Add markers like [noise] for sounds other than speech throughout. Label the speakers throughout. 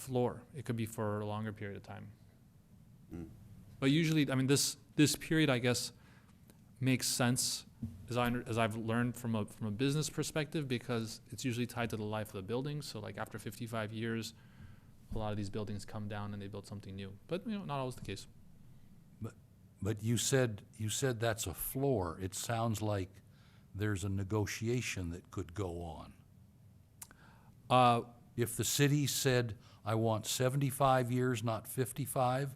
Speaker 1: floor. It could be for a longer period of time. But usually, I mean, this, this period, I guess, makes sense as I, under- as I've learned from a, from a business perspective, because it's usually tied to the life of the building. So like after fifty-five years, a lot of these buildings come down and they build something new. But, you know, not always the case.
Speaker 2: But you said, you said that's a floor. It sounds like there's a negotiation that could go on.
Speaker 1: Uh,
Speaker 2: If the city said, I want seventy-five years, not fifty-five,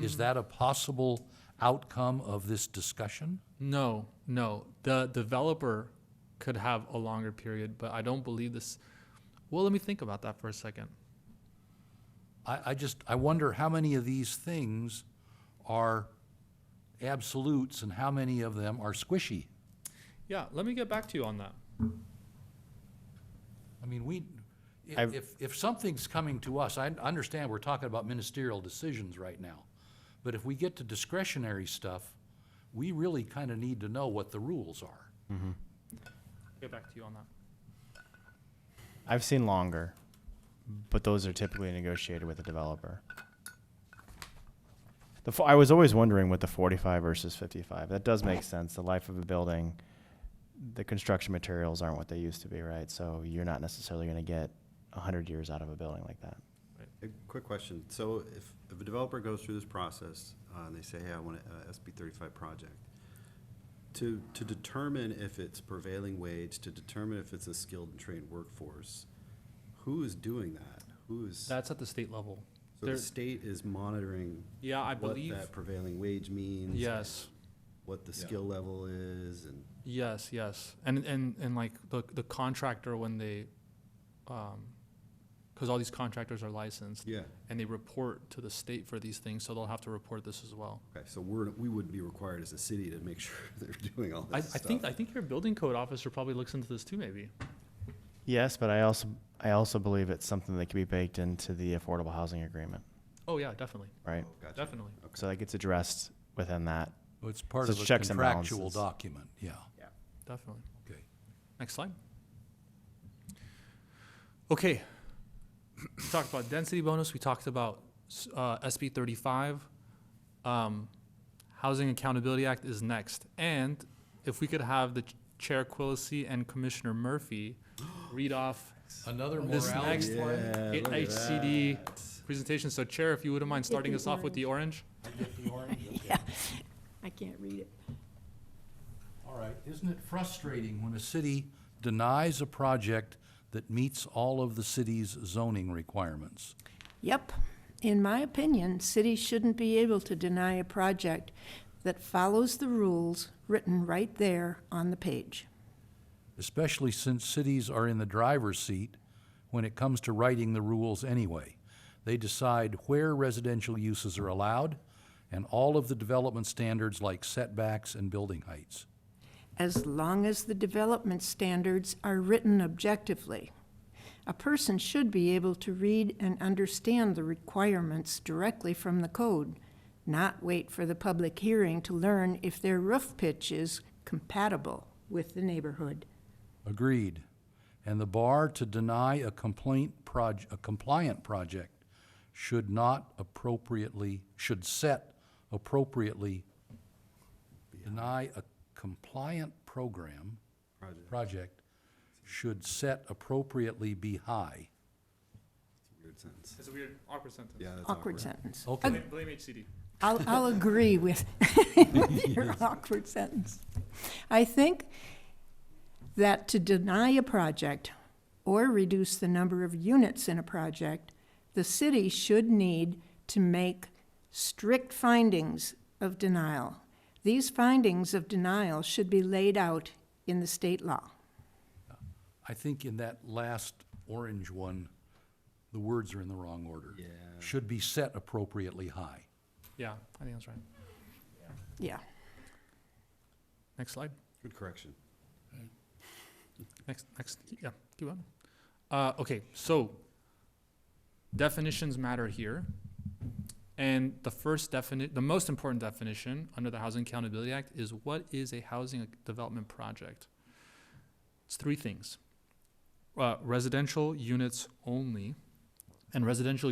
Speaker 2: is that a possible outcome of this discussion?
Speaker 1: No, no. The developer could have a longer period, but I don't believe this. Well, let me think about that for a second.
Speaker 2: I, I just, I wonder how many of these things are absolutes and how many of them are squishy?
Speaker 1: Yeah, let me get back to you on that.
Speaker 2: I mean, we, i-
Speaker 3: I've-
Speaker 2: if, if something's coming to us, I understand we're talking about ministerial decisions right now. But if we get to discretionary stuff, we really kind of need to know what the rules are.
Speaker 1: Get back to you on that.
Speaker 3: I've seen longer, but those are typically negotiated with the developer. The fo- I was always wondering with the 45 versus 55. That does make sense. The life of a building, the construction materials aren't what they used to be, right? So you're not necessarily going to get 100 years out of a building like that.
Speaker 4: A quick question. So if, if a developer goes through this process, uh, and they say, hey, I want a SB thirty-five project, to, to determine if it's prevailing wage, to determine if it's a skilled and trained workforce, who is doing that? Who is, so
Speaker 1: That's at the state level.
Speaker 4: the
Speaker 1: there-
Speaker 4: state is monitoring
Speaker 1: Yeah, I
Speaker 4: what
Speaker 1: believe.
Speaker 4: that prevailing wage means?
Speaker 1: Yes,
Speaker 4: What the
Speaker 2: Yeah.
Speaker 4: skill level is and,
Speaker 1: yes, yes. And and and like the the contractor when they, um, because all these contractors are licensed
Speaker 4: yeah,
Speaker 1: and they report to the state for these things, so they'll have to report this as well.
Speaker 4: okay, so we're, we would be required as a city to make [laughs] sure they're doing all
Speaker 1: I, I
Speaker 4: this stuff.
Speaker 1: think I think your building code officer probably looks into this too, maybe.
Speaker 3: Yes, but I also I also believe it's something that can be baked into the affordable housing agreement,
Speaker 1: Oh yeah, definitely,
Speaker 3: right?
Speaker 4: Gotcha.
Speaker 1: definitely.
Speaker 3: So that gets addressed within that.
Speaker 2: Well, It's part
Speaker 3: So
Speaker 2: of a
Speaker 3: checks and
Speaker 2: contractual
Speaker 3: balances.
Speaker 2: document, yeah,
Speaker 1: Definitely.
Speaker 2: okay.
Speaker 1: Next slide. Okay. We talked about density bonus. We talked about s- uh, SB 35. Um, Housing Accountability Act is next. And if we could have the ch- Chair Quillisi and Commissioner
Speaker 4: [gasps]
Speaker 1: Murphy read off
Speaker 2: Another
Speaker 1: this next
Speaker 2: morality,
Speaker 4: Yeah,
Speaker 1: one,
Speaker 4: Uh, look at
Speaker 1: HCD
Speaker 4: that.
Speaker 1: presentation. So Chair, if you wouldn't mind starting us off with the orange?
Speaker 5: I can't read it.
Speaker 2: all right, isn't it frustrating when a city denies a project that meets all of the city's zoning requirements?
Speaker 5: Yep. In my opinion, cities shouldn't be able to deny a project that follows the rules written right there on the page.
Speaker 2: especially since cities are in the driver's seat when it comes to writing the rules anyway. They decide where residential uses are allowed and all of the development standards like setbacks and building heights.
Speaker 5: as long as the development standards are written objectively. A person should be able to read and understand the requirements directly from the code, not wait for the public hearing to learn if their roof pitch is compatible with the neighborhood.
Speaker 2: Agreed. And the bar to deny a complaint proj- a compliant project should not appropriately should set appropriately deny a compliant program
Speaker 4: Project.
Speaker 2: project should set appropriately be high.
Speaker 4: Weird sentence.
Speaker 1: It's a weird, awkward sentence.
Speaker 4: Yeah, that's
Speaker 5: Awkward sentence.
Speaker 2: Okay,
Speaker 1: Blame HCD.
Speaker 5: I'll, I'll agree with [laughs] your awkward sentence. I think that to deny a project or reduce the number of units in a project, the city should need to make strict findings of denial. These findings of denial should be laid out in the state law.
Speaker 2: I think in that last orange one, the words are in the wrong order.
Speaker 4: Yeah.
Speaker 2: Should be set appropriately high.
Speaker 1: Yeah, I think that's right.
Speaker 5: Yeah.
Speaker 1: Next slide.
Speaker 4: Good correction.
Speaker 1: Next, next, yeah, keep on. Uh, okay, so definitions matter here. And the first definite, the most important definition under the Housing Accountability Act is what is a housing development project? It's three things. Uh, residential units only, and residential